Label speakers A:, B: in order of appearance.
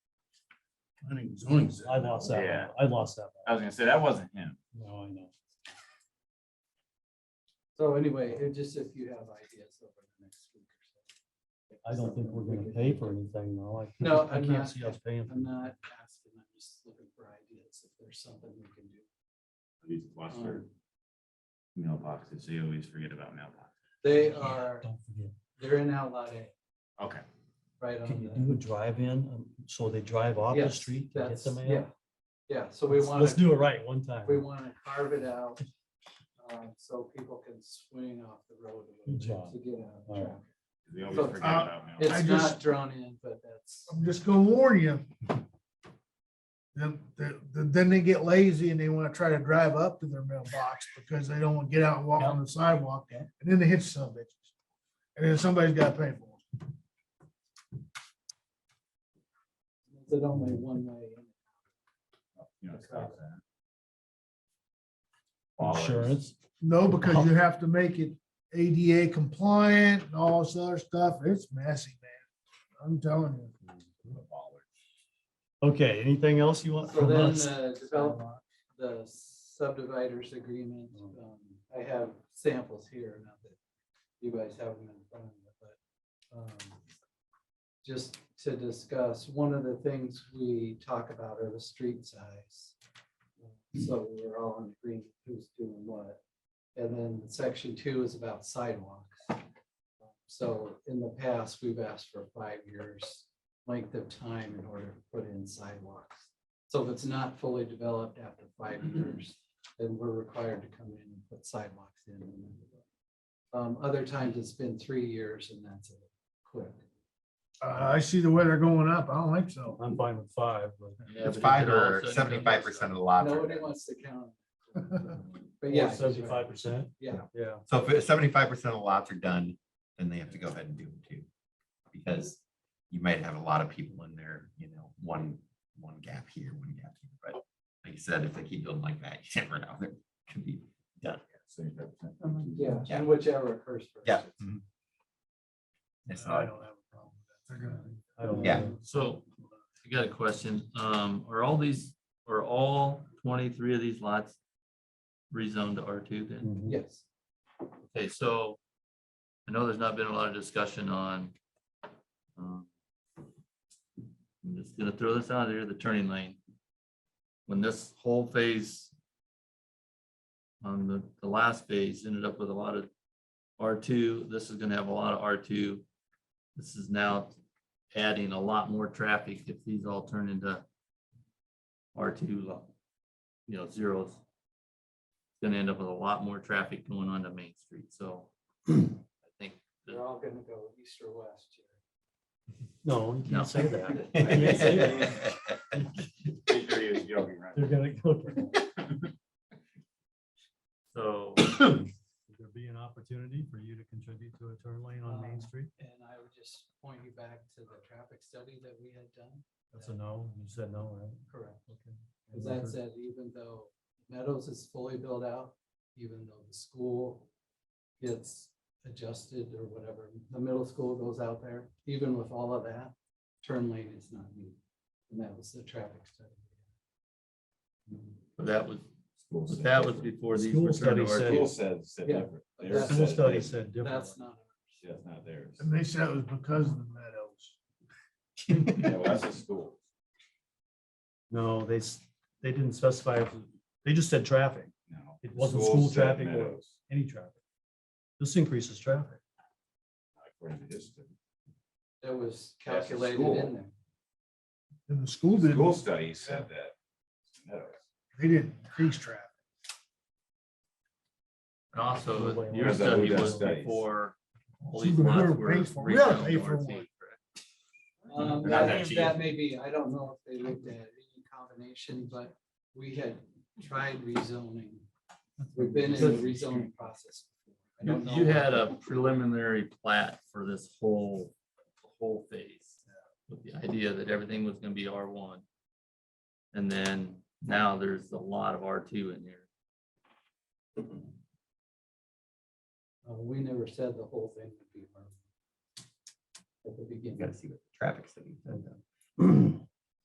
A: planning and zoning. said-
B: I lost that.
C: Yeah.
B: one. I lost that.
C: I was gonna say, that wasn't him.
B: one. No, I know.
D: So anyway, it just if you have ideas over the next week or so.
B: I don't think we're gonna pay for anything, though. I
D: No,
B: can't- I
D: I'm
B: can't
D: not.
B: see us paying. for
D: I'm
B: it.
D: not asking, I'm just looking for ideas, if there's something we can do. Um,
C: These watch their mailboxes. They always forget about mailboxes.
D: They
B: Yeah,
D: are,
B: Don't forget,
D: they're in outlet A,
C: Okay.
D: right
B: can
D: on
B: you
D: the.
B: do a drive-in, um, so they drive off the
D: Yes,
B: street to get
D: that's-
B: the mail?
D: Yeah, yeah, so we
B: Let's-
D: want
B: Let's
D: to,
B: do it right one time.
D: we want to carve it out, um, so people can swing off the road. a
B: Good
D: little
B: job.
D: bit To get out of
B: All right.
D: traffic.
C: They always
D: So,
C: forget
A: uh,
C: about mailboxes.
A: I
D: It's
A: just-
D: not drawn in, but that's,
A: I'm just gonna warn you. Then, then, then they get lazy and they wanna try to drive up to their mailbox because they don't wanna get out and walk on the sidewalk,
B: Yeah.
A: and then they hit some bitches. And then somebody's gotta pay for it.
D: it's only one way. in.
C: You know, stop that. Bollards.
B: Insurance,
A: No, because you have to make it ADA compliant and all this other stuff. It's messy, man. I'm telling you.
B: okay, anything else you want
D: So
B: from
D: then uh,
B: us?
D: the develop, the subdividers agreement,
B: Mm.
D: um, I have samples here, not that you guys have them in front of you, but, um, just to discuss, one of the things we talk about are the street size. So we're all in agreement who's doing what. And then section two is about sidewalks. So in the past, we've asked for five years length of time in order to put in sidewalks. So if it's not fully developed after five years, then we're required to come in and put sidewalks in. Um, other times it's been three years and that's it, quick.
A: Uh, I see the weather going up. I don't think so.
B: I'm fine with five, but.
D: Uh,
E: It's five or seventy-five percent of the lots. are
D: Nobody
E: there.
D: wants to count. But yeah. he's right.
B: Seventy-five percent?
D: Yeah.
B: Yeah.
E: So if seventy-five percent of the lots are done, then they have to go ahead and do them too. Because you might have a lot of people in there, you know, one, one gap here, one gap here, but like you said, if they keep building like that, you never know, there could be.
D: Yeah,
E: Yeah.
D: and whichever occurs first.
E: Yeah. It's
A: I
E: not,
A: don't have a problem with that. They're gonna-
B: I don't
E: Yeah.
B: know.
F: So I got a question. Um, are all these, are all twenty-three of these lots rezoned to R two then?
B: Mhm.
D: Yes,
F: Okay, so I know there's not been a lot of discussion on. um, I'm just gonna throw this out here, the turning lane. When this whole phase. On the, the last phase ended up with a lot of R two, this is gonna have a lot of R two. This is now adding a lot more traffic if these all turn into. R two, you know, zeros gonna end up with a lot more traffic going onto Main Street, so. I think,
D: they're all gonna go east or west here.
B: No, you
F: No.
B: can't say that. You can't say that.
C: Pretty sure he was joking, right?
B: They're gonna go.
F: so,
B: Would there be an opportunity for you to contribute to a turn lane on Main
D: Um,
B: Street?
D: And I would just point you back to the traffic study that we had done.
B: That's a no, you said no, right?
D: Correct.
B: Okay.
D: Cause that said, even though Meadows is fully built out, even though the school gets adjusted or whatever, the middle school goes out there, even with all of that, turn lane is not needed. And that was the traffic study.
F: but that was, but that was before these.
B: School
F: were
B: study
F: turned to
B: said-
C: School
F: RT.
C: says, said
D: Yeah.
C: different.
D: But
C: Theirs
D: that's-
B: School
C: says
B: study
C: different.
B: said different.
D: That's not,
C: Yeah, it's not theirs.
A: And they said it was because of the meadows.
C: Yeah, well, that's a school.
B: No, they, s- they didn't specify, if it- they just said traffic,
C: No.
B: It wasn't
C: School
B: school
C: said
B: traffic or-
C: Meadows,
B: any traffic. This increases traffic.
C: According to his study.
D: that was
C: That's the
D: calculated
C: school.
D: in there.
A: And the school
C: School
A: didn't,
C: studies said that. Meadows.
A: they didn't increase traffic.
F: And also,
B: Nobody
F: your
B: wants
C: to do
F: study
C: that
F: was
C: studies.
F: before. all
A: See,
F: these
A: but
F: lots
A: whoever
F: were
A: pays for it, we gotta
F: rezoned
A: pay
F: to
A: for
F: RT,
A: one.
F: correct?
D: Um,
F: Not
D: that,
F: that cheap.
D: that may be, I don't know if they looked at any combination, but we had tried rezoning. We've been in the rezoning process. before. I
F: You,
D: don't know
F: you
D: what-
F: had a preliminary plat for this whole, whole phase with the idea that everything was gonna be R one. And then now there's a lot of R two in here.
D: Uh, we never said the whole thing would be. harmful At the
E: you gotta
D: beginning,
E: see what the traffic study. said, though.